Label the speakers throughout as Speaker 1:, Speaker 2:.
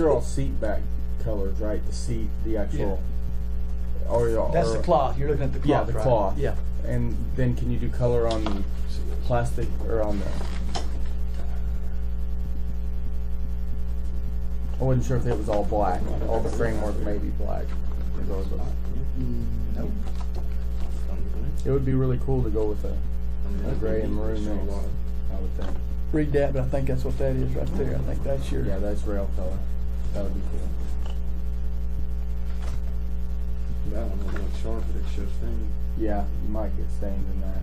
Speaker 1: are all seat back colors, right? The seat, the actual. Or, or,
Speaker 2: That's the cloth. You're looking at the cloth,
Speaker 1: Yeah, the
Speaker 2: right?
Speaker 1: cloth.
Speaker 2: Yeah.
Speaker 1: And then can you do color on the plastic or on the? I wasn't sure if it was all black. All the framework may be black.
Speaker 2: Mm. Nope.
Speaker 1: It would be really cool to go with a, a gray and maroon mix. I would think.
Speaker 2: Read that, but I think that's what that is right there. I think that's your.
Speaker 1: Yeah, that's rail color. That would be cool.
Speaker 3: That one would look sharp, but it's just in.
Speaker 1: Yeah, you might get stains in that.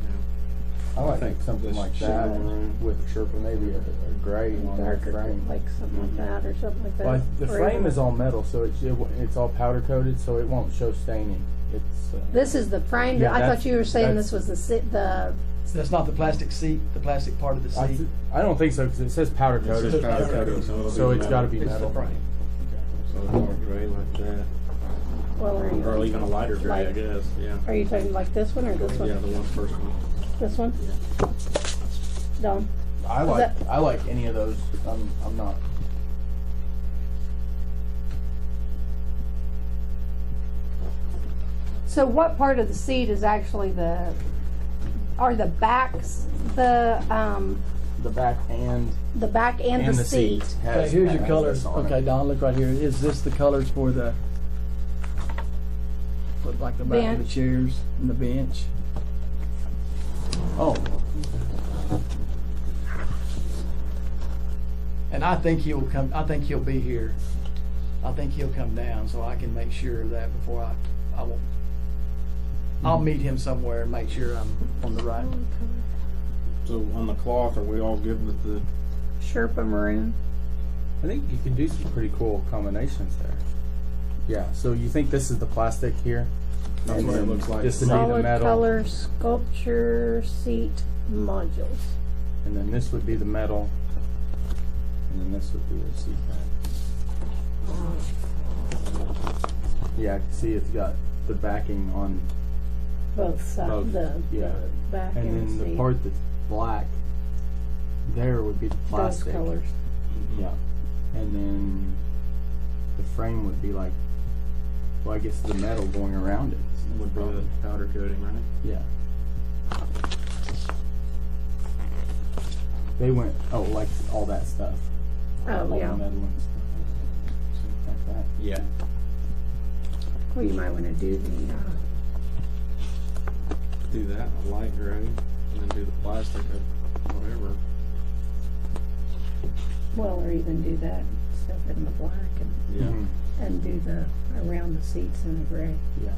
Speaker 1: I
Speaker 3: I
Speaker 1: like
Speaker 3: think
Speaker 1: something
Speaker 3: this
Speaker 1: like
Speaker 3: should
Speaker 1: that
Speaker 3: be maroon.
Speaker 1: with maybe a, a gray on that
Speaker 4: darker,
Speaker 1: frame.
Speaker 4: like something like that or something like that.
Speaker 1: Well, the
Speaker 4: Or
Speaker 1: frame
Speaker 4: even-
Speaker 1: is all metal, so it's it, w- it's all powder coated, so it won't show staining. It's uh,
Speaker 4: This is the frame.
Speaker 1: Yeah,
Speaker 4: I
Speaker 1: that's-
Speaker 4: thought you were saying
Speaker 1: that's-
Speaker 4: this was the si- the
Speaker 2: That's not the plastic seat. The plastic part of the
Speaker 1: I,
Speaker 2: seat.
Speaker 1: th- I don't think so because it says powder coated,
Speaker 3: just powder coated, so
Speaker 1: so it's got to be
Speaker 2: it's
Speaker 1: metal.
Speaker 2: the frame.
Speaker 3: So it's all gray like that,
Speaker 4: well. Are you,
Speaker 3: or even a lighter gray, I
Speaker 4: Light.
Speaker 3: guess, yeah.
Speaker 4: are you talking like this one or this one?
Speaker 3: Yeah, the one first one.
Speaker 4: This one. Done.
Speaker 1: I like I like any of those. I'm I'm not.
Speaker 4: So what part of the seat is actually the? Are the backs the um
Speaker 1: The back and
Speaker 4: the back and,
Speaker 1: and
Speaker 4: the,
Speaker 1: the seat.
Speaker 2: Okay,
Speaker 1: has-
Speaker 2: here's your
Speaker 1: has
Speaker 2: colors.
Speaker 1: this on it.
Speaker 2: Okay, Don, look right here. Is this the colors for the, look like the back of the
Speaker 4: Bench.
Speaker 2: chairs and the bench?
Speaker 1: Oh,
Speaker 2: And I think he'll come, I think he'll be here. I think he'll come down, so I can make sure of that before I, I will, I'll meet him somewhere and make sure I'm on the right.
Speaker 3: So on the cloth, are we all good with the?
Speaker 4: Sherpa maroon.
Speaker 1: I think you can do some pretty cool combinations there. Yeah. So you think this is the plastic here?
Speaker 3: That's
Speaker 1: And
Speaker 3: what it
Speaker 1: then
Speaker 3: looks like.
Speaker 1: This would be the
Speaker 4: Solid
Speaker 1: metal,
Speaker 4: color sculpture seat modules.
Speaker 1: and then this would be the metal, and then this would be the seat pad. Yeah, I can see it's got the backing on,
Speaker 4: Both
Speaker 1: Both,
Speaker 4: sides. The
Speaker 1: yeah.
Speaker 4: back
Speaker 1: and
Speaker 4: and
Speaker 1: then
Speaker 4: seat.
Speaker 1: the part that's black there would be the
Speaker 4: Those
Speaker 1: plastic.
Speaker 4: colors.
Speaker 1: Yeah. And then the frame would be like, well, I guess the metal going around it.
Speaker 3: Would be the powder coating, right?
Speaker 1: Yeah. They went, oh, like all that stuff. all
Speaker 4: Oh
Speaker 1: the
Speaker 4: yeah.
Speaker 1: metal and stuff. Like that.
Speaker 3: Yeah.
Speaker 4: Well, you might want to do the. Uh,
Speaker 3: Do that, a light gray, and then do the plastic or whatever.
Speaker 4: Well, or even do that stuff in the black and,
Speaker 3: Yeah.
Speaker 1: Mhm.
Speaker 4: and do the, around the seats in the gray.
Speaker 1: Yeah.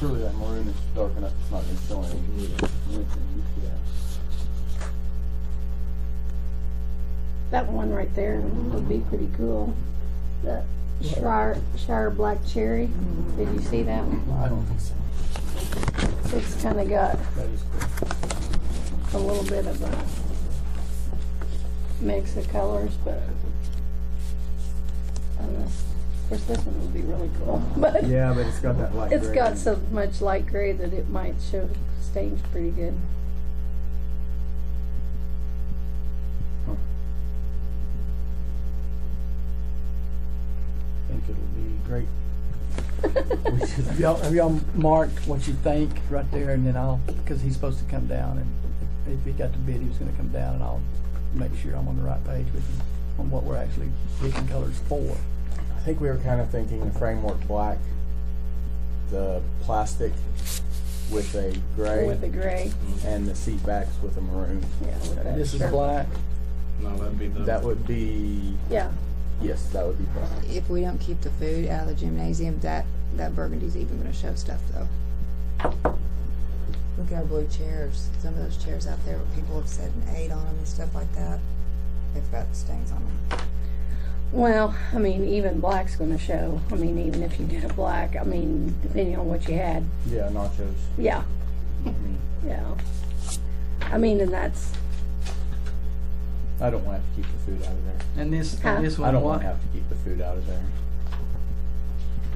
Speaker 1: Surely that maroon is dark enough, it's not gonna show anything. Yeah.
Speaker 4: That one right there would be pretty cool. The Shire, Shire Black Cherry. Did you see that? one?
Speaker 1: I don't think so.
Speaker 4: It's kind of got
Speaker 1: That is cool.
Speaker 4: a little bit of a mix of colors, but I don't know. Of course, this one would be really cool, but
Speaker 1: Yeah, but it's got that light
Speaker 4: it's
Speaker 1: gray in
Speaker 4: got
Speaker 1: it.
Speaker 4: so much light gray that it might show stains pretty good.
Speaker 1: I think it'll be great. We should-
Speaker 2: Have y'all, have y'all marked what you think right there and then I'll, because he's supposed to come down and if he got the bid, he was gonna come down and I'll make sure I'm on the right page with him on what we're actually picking colors for.
Speaker 1: I think we were kind of thinking the framework black, the plastic with a gray.
Speaker 4: With the gray,
Speaker 1: and the seat backs with a maroon.
Speaker 4: yeah, with that.
Speaker 2: This is
Speaker 4: sure.
Speaker 2: black.
Speaker 3: No, that'd be the.
Speaker 1: That would be
Speaker 4: Yeah,
Speaker 1: yes, that would be black.
Speaker 5: If we don't keep the food out of the gymnasium, that that burgundy's even going to show stuff though. Look at our blue chairs. Some of those chairs out there where people have sat and ate on them and stuff like that. They've got stains on them.
Speaker 4: Well, I mean, even black's going to show. I mean, even if you did a black, I mean, depending on what you had.
Speaker 1: Yeah, nachos.
Speaker 4: Yeah. Mm-hmm. Yeah. I mean, and that's,
Speaker 1: I don't want to have to keep the food out of there.
Speaker 2: And this,
Speaker 4: Huh?
Speaker 2: and this
Speaker 1: I
Speaker 2: one,
Speaker 1: don't want to
Speaker 2: what?
Speaker 1: have to keep the food out of there.